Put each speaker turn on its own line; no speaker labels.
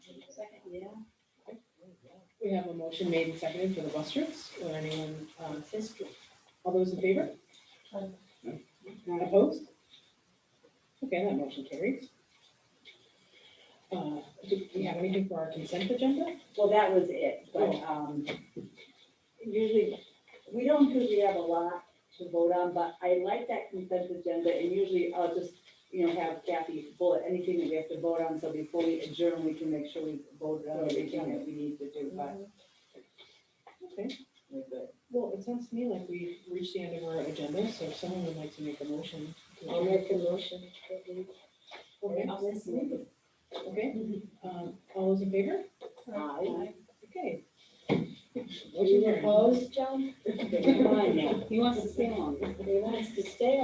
Yeah.
We have a motion made and seconded for the bus trips, or anyone, um, all those in favor? Not opposed? Okay, that motion carries. Uh, do we have anything for our consent agenda?
Well, that was it, but, um, usually, we don't usually have a lot to vote on, but I like that consent agenda, and usually I'll just, you know, have Kathy bullet anything that we have to vote on, so before we adjourn, we can make sure we voted on everything that we need to do, but
Okay,
we're good.
well, it sounds to me like we've reached the end of our agenda, so if someone would like to make a motion.
I'll make a motion.
Okay, okay, um, all those in favor?
Aye.
Okay.
Are you opposed, John?
Come on now,
He wants to stay on. He wants to stay